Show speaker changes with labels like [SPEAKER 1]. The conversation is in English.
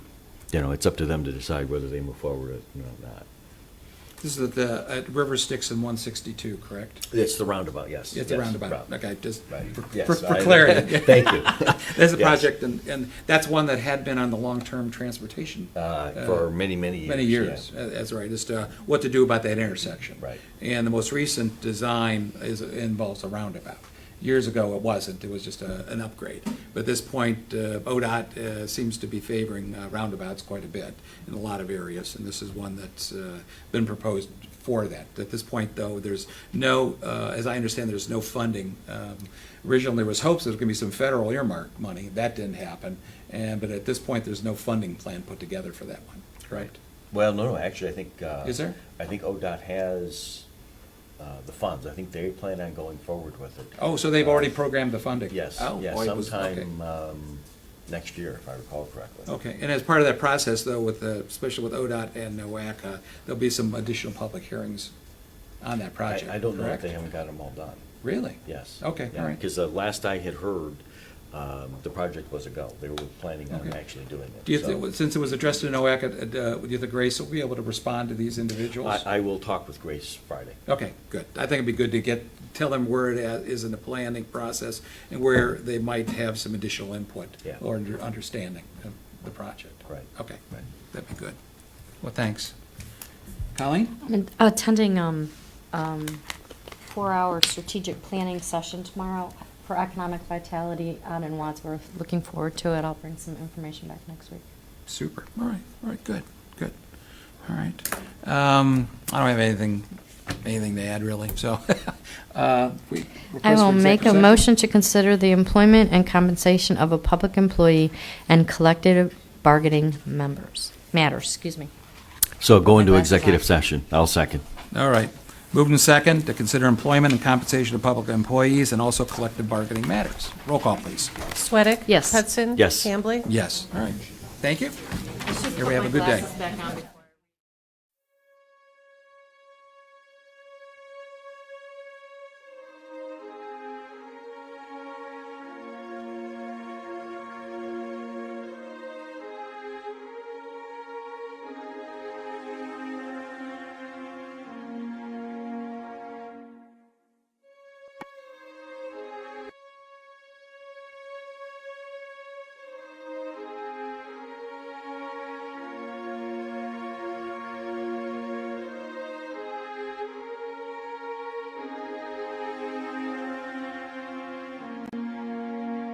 [SPEAKER 1] you know, it's up to them to decide whether they move forward or not.
[SPEAKER 2] This is at the, at River Styx and one sixty-two, correct?
[SPEAKER 1] It's the roundabout, yes.
[SPEAKER 2] It's a
[SPEAKER 1] yes,
[SPEAKER 2] roundabout,
[SPEAKER 1] round-
[SPEAKER 2] okay, just
[SPEAKER 1] right,
[SPEAKER 2] for-
[SPEAKER 1] yes,
[SPEAKER 2] for for
[SPEAKER 1] I-
[SPEAKER 2] clarity.
[SPEAKER 1] Thank you.
[SPEAKER 2] There's a
[SPEAKER 1] Yes.
[SPEAKER 2] project, and, and that's one that had been on the long-term transportation.
[SPEAKER 1] Uh, For many, many years.
[SPEAKER 2] Many
[SPEAKER 1] yeah.
[SPEAKER 2] years, Uh, that's right, just uh, what to do about that intersection.
[SPEAKER 1] Right.
[SPEAKER 2] And the most recent design is, involves a roundabout. Years ago, it wasn't, it was just a, an upgrade. But at this point, uh, ODOT uh, seems to be favoring uh, roundabouts quite a bit in a lot of areas, and this is one that's uh, been proposed for that. At this point, though, there's no, uh, as I understand, there's no funding. Um, Originally, there was hopes there was going to be some federal earmark money, that didn't happen, and, but at this point, there's no funding plan put together for that one, correct?
[SPEAKER 1] Well, no, no, actually, I think. uh,
[SPEAKER 2] Is there?
[SPEAKER 1] I think ODOT has uh, the funds. I think they plan on going forward with it.
[SPEAKER 2] Oh, so they've already programmed the funding?
[SPEAKER 1] Yes,
[SPEAKER 2] Oh,
[SPEAKER 1] yes,
[SPEAKER 2] boy, it was-
[SPEAKER 1] sometime um, next year, if I recall correctly.
[SPEAKER 2] Okay, Okay. and as part of that process, though, with, the- especially with ODOT and NOAC, uh, there'll be some additional public hearings on that project,
[SPEAKER 1] I I don't know if
[SPEAKER 2] correct?
[SPEAKER 1] they haven't got them all done,
[SPEAKER 2] Really?
[SPEAKER 1] yes.
[SPEAKER 2] Okay, all right.
[SPEAKER 1] Because the last I had heard, um, the project was a go. They were planning on
[SPEAKER 2] Okay.
[SPEAKER 1] actually doing it.
[SPEAKER 2] Do you,
[SPEAKER 1] so-
[SPEAKER 2] thi- since it was addressed to NOAC, uh, uh, do you think Grace will be able to respond to these individuals?
[SPEAKER 1] I, I will talk with Grace Friday.
[SPEAKER 2] Okay, good. I think it'd be good to get, tell them where it at- is in the planning process and where they might have some additional input
[SPEAKER 1] Yeah.
[SPEAKER 2] or under- understanding of the project.
[SPEAKER 1] Right.
[SPEAKER 2] Okay,
[SPEAKER 1] Right.
[SPEAKER 2] that'd be good. Well, thanks. Colleen?
[SPEAKER 3] I'm attending um, um, four-hour strategic planning session tomorrow for economic vitality out in Wadsworth. Looking forward to it. I'll bring some information back next week.
[SPEAKER 2] Super. All right, all right, good, good. All right. Um, I don't have anything, anything to add really, so. uh, we-
[SPEAKER 3] I
[SPEAKER 2] request for
[SPEAKER 3] will make a
[SPEAKER 2] executive
[SPEAKER 3] motion to consider the employment and compensation of a public employee and collective bargaining members, matters, excuse me.
[SPEAKER 1] So go into
[SPEAKER 3] My glasses
[SPEAKER 1] executive
[SPEAKER 3] off.
[SPEAKER 1] session. I'll second.
[SPEAKER 2] session? All right. Moved and second to consider employment and compensation of public employees and also collective bargaining matters. Roll call, please.
[SPEAKER 4] Sweattick?
[SPEAKER 3] Yes.
[SPEAKER 4] Hudson?
[SPEAKER 1] Yes.
[SPEAKER 4] Hambley?
[SPEAKER 2] Yes, all right. Thank you. Everybody have a good day.